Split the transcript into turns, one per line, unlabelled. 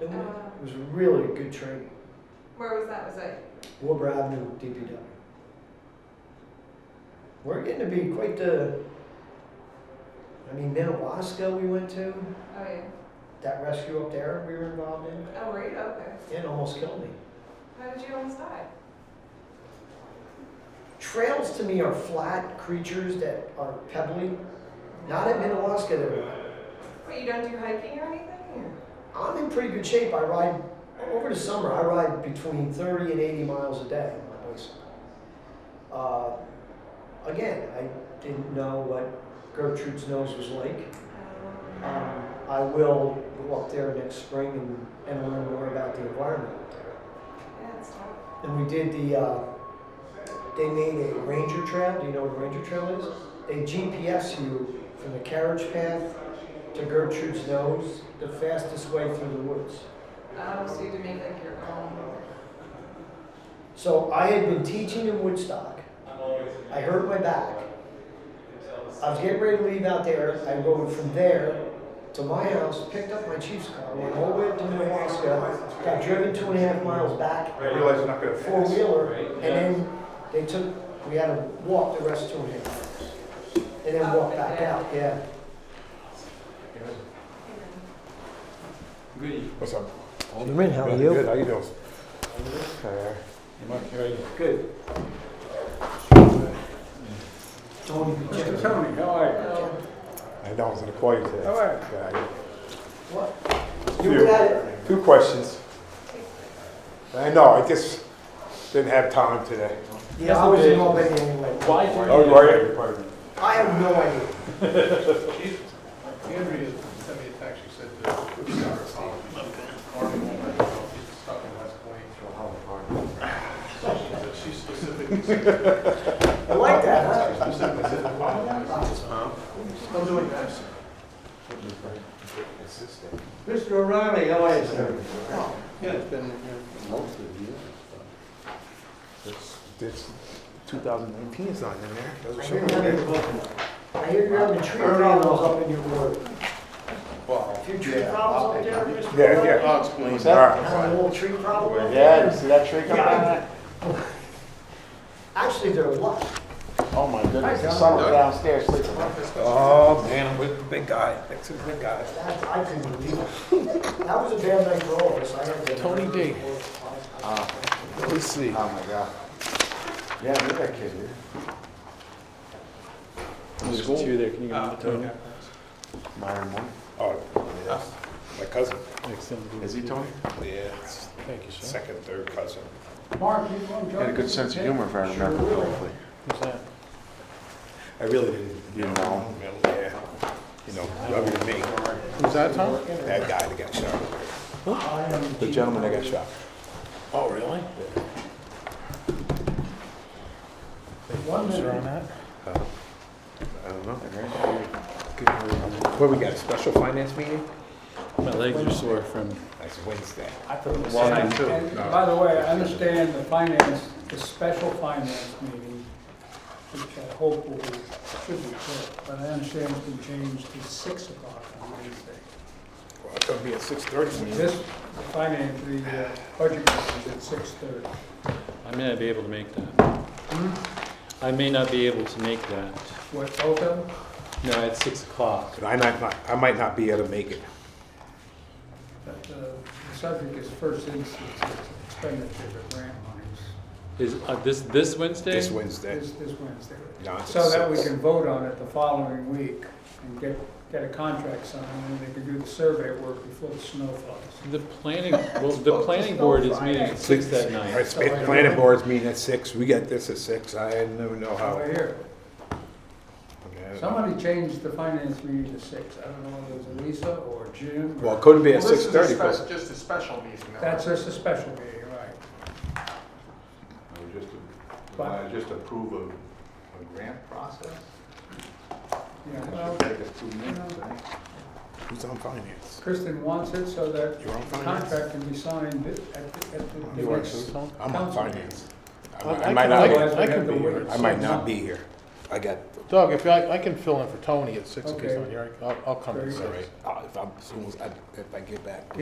It was really good training.
Where was that? Was it?
Wilbur Avenue DPW. We're getting to be quite the. I mean, Madawaska we went to,
Oh yeah.
that rescue up there we were involved in,
Oh, were you? Okay.
it almost killed me.
How did you almost die?
Trails to me are flat creatures that are pebbly. Not at Minnewaska, they're,
Wait, you don't do hiking or anything? Or?
I'm in pretty good shape. I ride, over the summer, I ride between 30 and 80 miles a day on my bicycle. Uh, again, I didn't know what Gertrude's nose was like.
Um,
Um, I will go up there next spring and, and learn more about the environment up there.
yeah, it's tough.
And we did the, uh, they made a ranger trail. Do you know what a ranger trail is? They GPS you from the carriage path to Gertrude's nose, the fastest way through the woods.
Oh, so you had to make like your own.
So I had been teaching in Woodstock. I hurt my back. I was getting ready to leave out there. I rode from there to my house, picked up my chief's car, went all the way up to Nebraska, got driven two and a half miles back,
I realize I'm not gonna
four
pass.
wheeler, and then they took, we had to walk the rest two and a half miles. And then walk back out, yeah.
Good evening.
What's up?
Alderman, how
Good, Good, how you doing? Uh,
Good.
Tony,
Mr. Tony, how are
Hello.
I know, I was gonna call you today.
All right.
Yeah,
what?
I-
You were at it.
Few- Two questions. I know, I just didn't have time today.
Yeah, I was in Albany anyway.
you? Why do you?
Oh, you are here, pardon.
I have no idea.
Andrea sent me a text, she said that it's not her fault. Army won't let her go, she's stuck in West Plains. She said She specifically said,
I like that,
she
huh?
specifically said, "Huh? Still doing that?"
Mr. O'Reilly, how are you, sir?
Yeah, it's been,
This- This 2019 is not in there.
I
Doesn't
hear
show
you're
it.
having- I hear you're having tree problems up in your ward.
well.
Your tree problems up there, Mr.
Yeah, yeah.
I'll explain.
What's that?
Having a little tree problem up
Yeah, you
there?
see that tree coming
Yeah.
out?
Actually, there are lots.
Oh, my goodness,
the
sun
son
was
was
downstairs sleeping. Oh, man, I'm with the big guy, next to the big guy.
That, I couldn't believe it. That was a bad night for all of us, I had to.
Tony D. Let's see.
Oh my god. Yeah, look at that kid, dude.
There's two there, can you
Ah,
give me the
Myron Moore.
Oh,
Yeah.
my cousin,
Tony?
Is he Tony?
yeah, it's
Thank you, sir.
second, third cousin.
Mark, you want
He
to
had a good sense of humor, if I remember correctly.
Who's that?
I really didn't.
You know him?
Yeah, you know, rubber to me,
Who's that, Tom?
that guy that got shot.
The gentleman that got shot.
Oh, really?
One minute.
that?
I don't know. What, we got a special finance meeting?
My legs are sore from.
That's Wednesday.
Walking
too.
And by the way, I understand the finance, the special finance meeting, which I hope will, be- should be quick, but I understand it's been changed to six o'clock on Wednesday.
Well, it's gonna be at six thirty.
This, the finance, the uh, budget meeting is at six thirty.
I may not be able to make that.
Hmm?
I may not be able to make that.
What, both of them?
No, it's six o'clock.
But I might not, I might not be able to make it.
But uh, the subject is first instance expenditure of grant monies,
Is, uh, this, this Wednesday?
This Wednesday.
this, this Wednesday.
John,
So that we
six.
can vote on it the following week and get, get a contract signed, and they can do the survey work before the snow falls.
The planning, well, the planning board is meeting at six that
All
night.
right, sp- planning board's meeting at six, we got this at six, I don't know how.
Over here.
Okay.
Somebody changed the finance meeting to six. I don't know whether it was Lisa or Jim.
Well, it couldn't be
Well,
at
this
six
is a
thirty,
spec-
but
just a special meeting. though.
That's just a special meeting, right.
Just,
But- I
just approve of a grant process?
Yeah, well,
who's on finance?
Kristen wants it so that
You're on
the
finance?
contract can be signed at, the- at the,
You are
at the.
too. I'm on
Council.
finance. I
I-
might-
I
I might
can-
not,
I
be-
can- I can be here.
I might not be here. I got,
Doug, if I, I can fill in for Tony at six, if he's
Okay.
not here, I'll, I'll come at
Very
all
six.
right, Uh, if I'm, as soon as I, if I get back.